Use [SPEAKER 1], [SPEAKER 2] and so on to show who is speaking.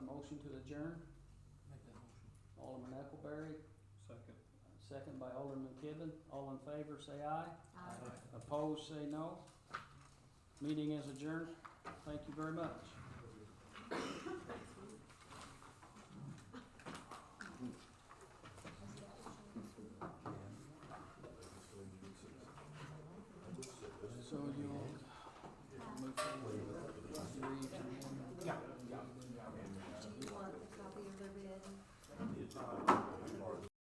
[SPEAKER 1] adjourn?
[SPEAKER 2] Make that motion.
[SPEAKER 1] Alderman Eccleberry,
[SPEAKER 3] Second.
[SPEAKER 1] second by Alderman Kivin. All in favor, say aye.
[SPEAKER 4] Aye.
[SPEAKER 1] Opposed, say no. Meeting is adjourned. Thank you very much.